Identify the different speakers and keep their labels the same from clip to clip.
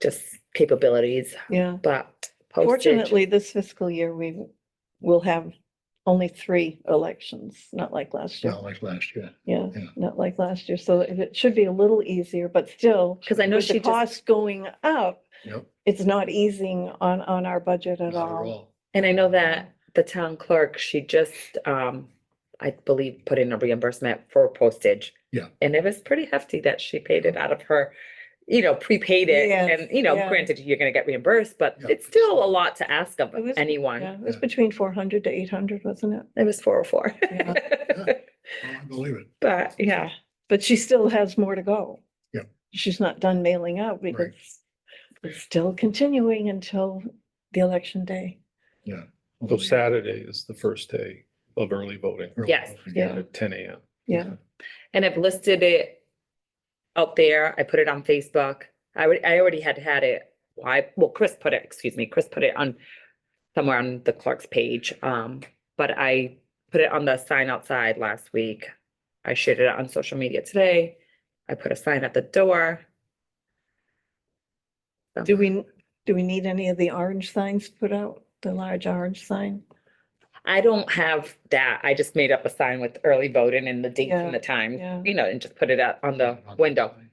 Speaker 1: just capabilities,
Speaker 2: Yeah.
Speaker 1: but postage.
Speaker 2: Fortunately, this fiscal year, we will have only three elections, not like last year.
Speaker 3: not like last year.
Speaker 2: Yeah,
Speaker 3: yeah.
Speaker 2: not like last year. So if it should be a little easier, but still,
Speaker 1: Because I know
Speaker 2: with
Speaker 1: she
Speaker 2: the
Speaker 1: just,
Speaker 2: cost going up,
Speaker 3: Yep.
Speaker 2: it's not easing on, on our budget at
Speaker 3: not at
Speaker 2: all.
Speaker 1: and I know that the town clerk, she just, um, I believe, put in a reimbursement for postage.
Speaker 3: Yeah.
Speaker 1: And it was pretty hefty that she paid it out of her, you know, prepaid it
Speaker 2: Yes,
Speaker 1: and, you know,
Speaker 2: yeah.
Speaker 1: granted, you're gonna get reimbursed, but
Speaker 3: Yeah.
Speaker 1: it's still a lot to ask of
Speaker 2: It was- Yeah,
Speaker 1: anyone.
Speaker 2: it was
Speaker 3: Yeah.
Speaker 2: between four hundred to eight hundred, wasn't it?
Speaker 1: It was four oh four.
Speaker 2: Yeah.
Speaker 3: Oh, I believe it.
Speaker 1: But yeah,
Speaker 2: But she still has more to go.
Speaker 3: Yep.
Speaker 2: She's not done mailing out because it's still continuing until the election day.
Speaker 4: So Saturday is the first day of early voting
Speaker 3: Oh, Early
Speaker 1: Yes.
Speaker 3: voting,
Speaker 2: Yeah.
Speaker 4: at ten AM.
Speaker 2: Yeah,
Speaker 1: and I've listed it out there. I put it on Facebook. I would, I already had had it. I, well, Chris put it, excuse me, Chris put it on somewhere on the clerk's page. Um, but I put it on the sign outside last week. I shared it on social media today. I put a sign at the door.
Speaker 2: do we, do we need any of the orange signs put out, the large orange sign?
Speaker 1: I don't have that. I just made up a sign with early voting and the date
Speaker 2: Yeah,
Speaker 1: and the time,
Speaker 2: yeah.
Speaker 1: you know, and just put it out on the
Speaker 3: On
Speaker 1: window
Speaker 3: sign,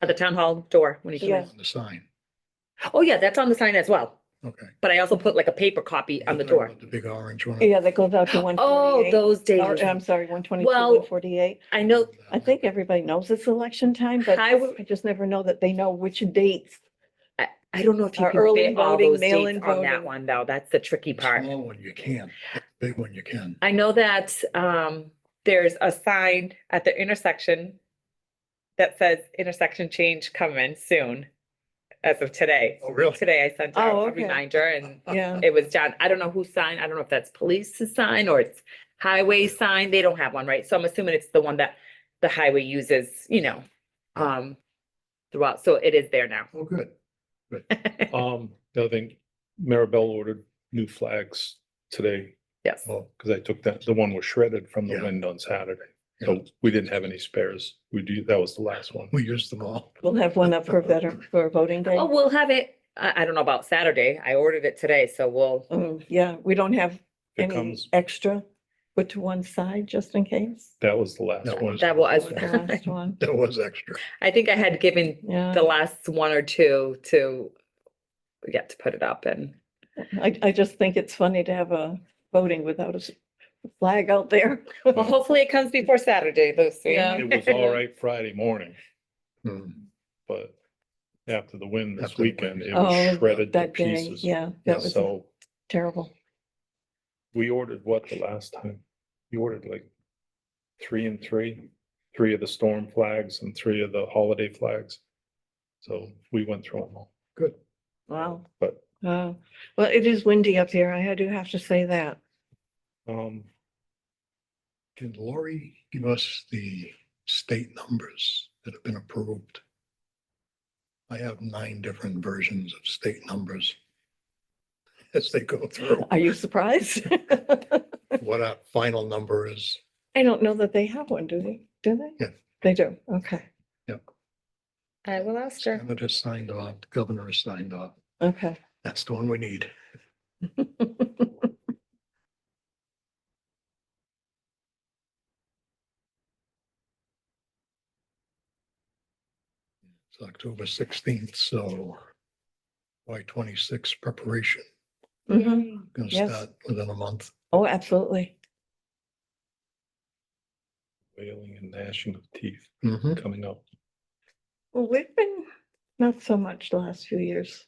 Speaker 1: at the town hall door when you come in.
Speaker 2: Yeah.
Speaker 3: On the sign,
Speaker 1: Oh, yeah, that's on the sign as well.
Speaker 3: okay.
Speaker 1: But I also put like a paper copy on the
Speaker 3: You're talking
Speaker 1: door.
Speaker 3: about The big orange one.
Speaker 2: Yeah, that goes out to one
Speaker 1: Oh,
Speaker 2: forty-eight.
Speaker 1: those days.
Speaker 2: I'm sorry, one twenty-two,
Speaker 1: Well,
Speaker 2: one forty-eight.
Speaker 1: I know,
Speaker 2: I think everybody knows it's election time, but
Speaker 1: I would-
Speaker 2: I just never know that they know which dates.
Speaker 1: I, I don't know if you
Speaker 2: Our
Speaker 1: can
Speaker 2: early
Speaker 1: fit all
Speaker 2: voting,
Speaker 1: those
Speaker 2: mail-in
Speaker 1: dates on that
Speaker 2: voting.
Speaker 1: one though. That's the tricky
Speaker 3: The
Speaker 1: part.
Speaker 3: Small one you can, the big one you can.
Speaker 1: I know that, um, there's a sign at the intersection that says intersection change coming soon as of today.
Speaker 3: Oh, really?
Speaker 1: Today I sent
Speaker 2: Oh,
Speaker 1: out a
Speaker 2: okay.
Speaker 1: reminder and
Speaker 2: Yeah,
Speaker 1: it was John, I don't know whose sign, I don't know if that's police's sign or it's highway sign, they don't have one, right? So I'm assuming it's the one that the highway uses, you know, um, throughout, so it is there now.
Speaker 3: Oh, good.
Speaker 4: Um, the other thing, Maribel ordered new flags today
Speaker 1: Yes,
Speaker 3: Well,
Speaker 4: because I took that, the one was shredded from the
Speaker 3: Yeah.
Speaker 4: wind on Saturday.
Speaker 3: yeah,
Speaker 1: Oh.
Speaker 4: So we didn't have any spares. We do, that was the last one.
Speaker 3: we used them all.
Speaker 2: we'll have one up for veteran, for voting day.
Speaker 1: oh, we'll have it, I, I don't know about Saturday, I ordered it today, so we'll,
Speaker 2: Um, yeah, we don't have
Speaker 4: It
Speaker 2: any
Speaker 4: comes,
Speaker 2: extra put to one side just in case.
Speaker 4: that was the last
Speaker 3: That
Speaker 4: one.
Speaker 1: that was,
Speaker 2: That was the last one.
Speaker 3: That was extra.
Speaker 1: I think I had given
Speaker 2: Yeah,
Speaker 1: the last one or two to get to put it up and,
Speaker 2: I, I just think it's funny to have a voting without a s- flag out there.
Speaker 1: well, hopefully it comes before Saturday, Lucy.
Speaker 2: Yeah.
Speaker 4: It was all right Friday morning,
Speaker 3: Hmm.
Speaker 4: but after the wind
Speaker 3: After
Speaker 4: this
Speaker 3: the wind.
Speaker 4: weekend, it
Speaker 2: Oh,
Speaker 4: was shredded to
Speaker 2: That day,
Speaker 4: pieces.
Speaker 2: yeah,
Speaker 3: Yeah,
Speaker 2: that was
Speaker 4: So
Speaker 2: terrible.
Speaker 4: We ordered what the last time? You ordered like three and three, three of the storm flags and three of the holiday flags. So we went through them all.
Speaker 3: Good.
Speaker 2: Wow.
Speaker 4: But,
Speaker 2: Wow. Uh, Well, it is windy up here. I do have to say that.
Speaker 4: um,
Speaker 3: Can Lori give us the state numbers that have been approved? I have nine different versions of state numbers as they go through,
Speaker 2: Are you surprised?
Speaker 3: what our final number is.
Speaker 2: I don't know that they have one, do they? Do they?
Speaker 3: Yeah.
Speaker 2: They do. Okay.
Speaker 1: I will ask her.
Speaker 3: Senator signed off, the governor has signed off.
Speaker 2: Okay.
Speaker 3: That's the one we need.
Speaker 2: Mm-hmm.
Speaker 3: It's October sixteenth, so Y twenty-six preparation,
Speaker 2: Mhm.
Speaker 1: Mm-hmm.
Speaker 3: gonna
Speaker 2: Yes.
Speaker 3: start within a month.
Speaker 2: Oh, absolutely.
Speaker 4: wailing and gnashing of teeth
Speaker 3: Mhm.
Speaker 4: coming up.
Speaker 2: Well, we've been, not so much the last few years.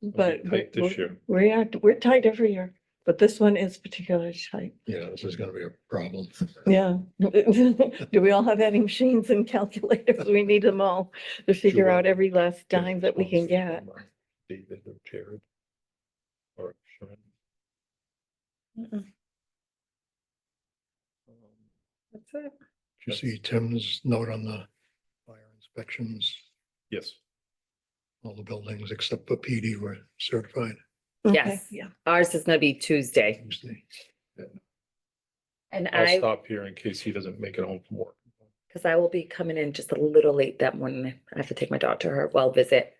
Speaker 2: But
Speaker 4: tight
Speaker 2: we-
Speaker 4: this
Speaker 2: we-
Speaker 4: year.
Speaker 2: we are, we're tight every year, but this one is particularly tight.
Speaker 3: Yeah, this is gonna be a problem.
Speaker 2: Yeah. Do we all have any machines and calculators? We need them all to figure
Speaker 4: Sure.
Speaker 2: out every last dime that we can get.
Speaker 4: Responses from, uh, David or Jared. Or Sharon. um,
Speaker 1: That's it.
Speaker 3: Did you see Tim's note on the fire inspections?
Speaker 4: Yes,
Speaker 3: All the buildings except for PD were certified
Speaker 2: Okay,
Speaker 1: Yes.
Speaker 2: Yeah.
Speaker 1: Ours is gonna be Tuesday.
Speaker 3: Tuesday.
Speaker 1: And
Speaker 4: I'll
Speaker 1: I,
Speaker 4: stop here in case he doesn't make it home from work.
Speaker 1: Cause I will be coming in just a little late that morning. I have to take my daughter to her well visit.